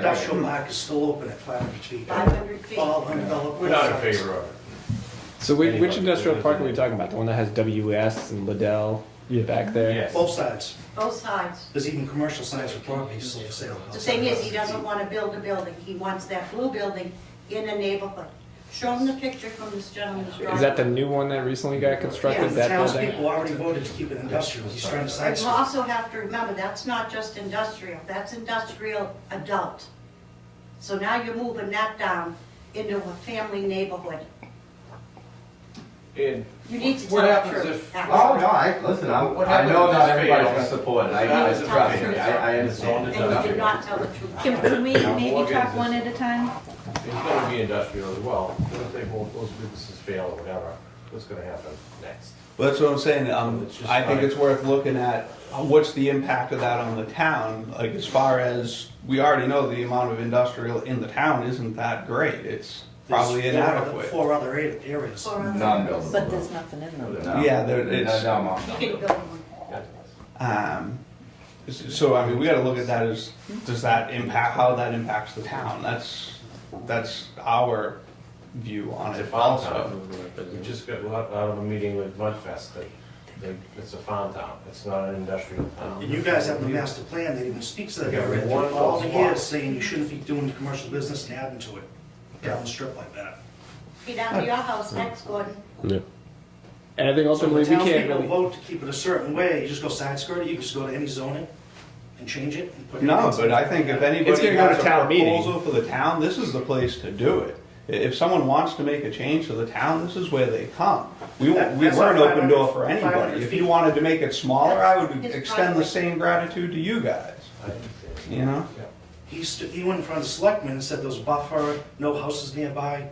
Industrial park is still open at 500 feet. 500 feet. All undeveloped. We're not in sites. favor of it. So which, which Anybody. industrial park are we talking about? The one that has WS and Liddell back there? Yes. Both sides. both sides. There's even commercial signs for properties still for sale. The thing is, he doesn't want to build a building, he wants that blue building in a neighborhood. Show him the picture from this gentleman's drawing. Is that the new one that recently got constructed? Yeah, The that building? townspeople already voted to keep it industrial. He's trying to But you sidestep. also have to remember, that's not just industrial, that's industrial adult. So now you're moving that down into a family neighborhood. And You need to What tell the happens truth. if- actually. Oh, no, I, listen, I, What I happened know if not this everybody's fails? gonna support it, I, That I, is a trust tough me, I, I And understand. you And you did not tell the truth. Can can we Well, maybe again, talk one at a time? it's gonna be industrial as well, What if they both, those businesses fail or whatever, what's gonna happen next? Well, that's what I'm saying, um, It's just I think like- it's worth looking at, uh, what's the impact of that on the town? Like, as far as, we already know the amount of industrial in the town isn't that great, it's probably There's four other- inadequate. Four other a- areas. Or, uh, Non-buildable. But there's nothing in them. No. Yeah, there- it's- No, no, Mom. You can build one. Um, s- so, I mean, we gotta look at that as, does that impact, how that impacts the town? That's, that's our view on It's a it farm also. town, we just got out out of a meeting with Mudfest, they, they, it's a farm town, it's not an industrial town. And you guys have the master plan that even speaks to that Yeah, area. one of All the those years lots. saying you shouldn't be doing commercial business and adding to it down the strip like that. Be down to your house next, Gordon. And I So think the ultimately we can't townspeople really. vote to keep it a certain way, you just go side skirt it, you can just go to any zoning and change it and put. No, anything- but I think if It's anybody gonna go to has a town meeting. proposal for the town, this is the place to do it. I- If someone wants to make a change to the town, this is where they come. We, wa- That- we that's were an not open door for 500 anybody. If feet. you wanted to make it smaller, I would That's his extend the driveway. same gratitude to you guys, I understand. you know? Yeah. He stood, he went in front of the selectmen and said there's buffer, no houses nearby.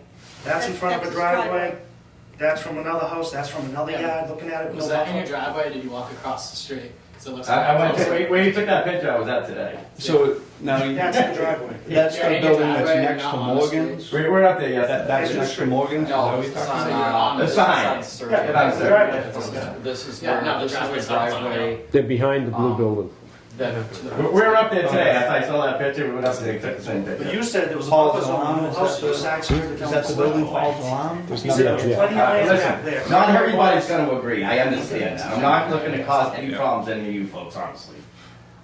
That's in That's- front of a that's his driveway. driveway, that's from another house, that's from another Yeah. yard, looking at it, no Was that in your buffer. driveway or did you walk across the street? 'Cause it looks I, I like went, to- where, where you took that picture, I was at today. So, now, you- That's the driveway. that's Yeah, the yeah, building that's driveway, next not to on the street. Morgan's? We, we're up there That, yesterday. that's next to Morgan's? Is that No, what you're it's talking on, about? uh, The it's sign. on Surrey. Yeah, And I the said- driveway. This is, Yeah, no, the this is driveway's the not on the driveway. They're behind the blue Um, building. that- We, we were up there today, after I saw that picture, we went up there, and took the same But picture. you said there was a Paul's buffer zone, alarm, no is houses, that no the- side skirt it, Is down the that the building selectmen. Paul's alarm? There's He said there's nothing. plenty of Uh, land back there. listen, not everybody's gonna agree, I understand that, I'm not looking to cause any problems to any of you folks, honestly.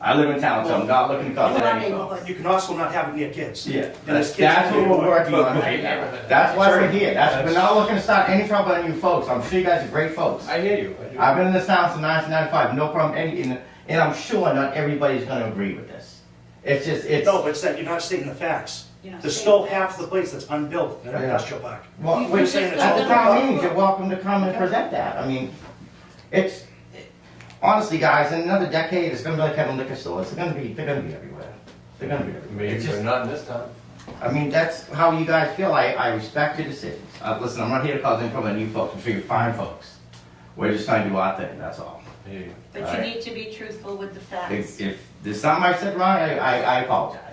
I live in town, so I'm not looking to In cause our any problems. neighborhood. You can also not have it near kids. Yeah, And there's that's, kids that's what we're nearby. working on right now. That's why we're here. That's, we're not looking to start any trouble on you folks. I'm sure you guys are great folks. I hear you, I do. I've been in this town since 1995, no problem, any, and, and I'm sure not everybody's gonna agree with this. It's just, it's, No, but it's that you're not stating the facts. You're not There's stating still the half facts. the place that's unbuilt in an Yeah. industrial park. well, You we're just saying, got all the- town meetings, you're welcome to come and present that. I mean, it's, honestly, guys, in another decade, it's gonna be like having liquor stores. They're gonna be, they're gonna be everywhere. They're gonna be everywhere. Maybe, It's but just- not in this town. I mean, that's how you guys feel. I, I respect your decisions. Uh, listen, I'm not here to cause any problem on you folks. I'm sure you're fine folks. We're just trying to do our thing, that's all. I hear you. But you Alright. need to be truthful with the facts. If, if there's something I said wrong, I, I, I apologize.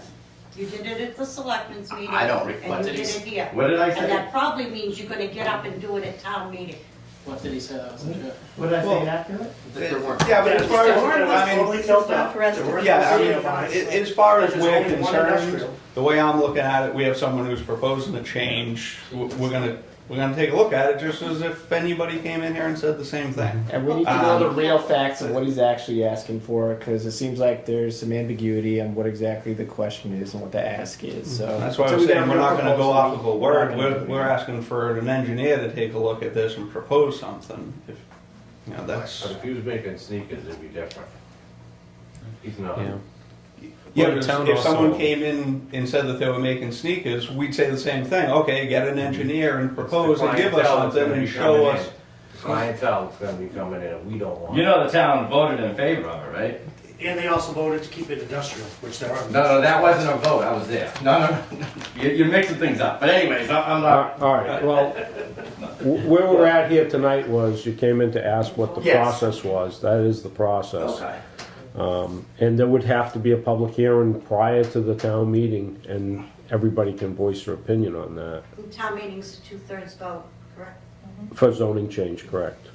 You did it at the selectmen's meeting. I don't reflect And you it. did it here. What did I And say? that probably means you're gonna get up and do it at town meeting. What did he say that wasn't true? What did I Well- say inaccurate? that there weren't- Yeah, but as far as, There was I mean, totally built not up. for us to There were Yeah, I totally mean, defined. a- as far as There's we're only one concerned, industrial. the way I'm looking at it, we have someone who's proposing a change. W- We're gonna, we're gonna take a look at it just as if anybody came in here and said the same thing. And we need Uh, to know the real facts of what he's actually asking for because it seems like there's some ambiguity on what exactly the question is and what the ask is. So That's why so I'm we got a saying we're real not gonna go proposal. off of a We're not word. gonna We're, do we're that. asking for an engineer to take a look at this and propose something. If, you know, that's, But if he was making sneakers, it'd be different. He's not. Yeah. yeah, Well, but the town if- if also- someone came in and said that they were making sneakers, we'd say the same thing. Okay, get an engineer and propose and give us Clientele is something gonna and be show coming us. in. Clientele is gonna be coming in, we don't want. You know the town voted in favor of it, right? And they also voted to keep it industrial, which there are. No, no, that wasn't a vote. I was there. No, no, no. You, you're mixing things up. But anyways, I- I'm not. All right, well, w- where we're at here tonight was you came in to ask what the Yes. process was. That is the process. Okay. And there would have to be a public hearing prior to the town meeting and everybody can voice their opinion on that. And town meeting's a two-thirds vote, correct? For zoning change, correct?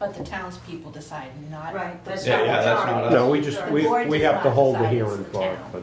But the townspeople decide not. Right, that's Yeah, not yeah, that's majority. not us. No, we just, The we, board we does have to not hold the decide it's hearing the for it, town. but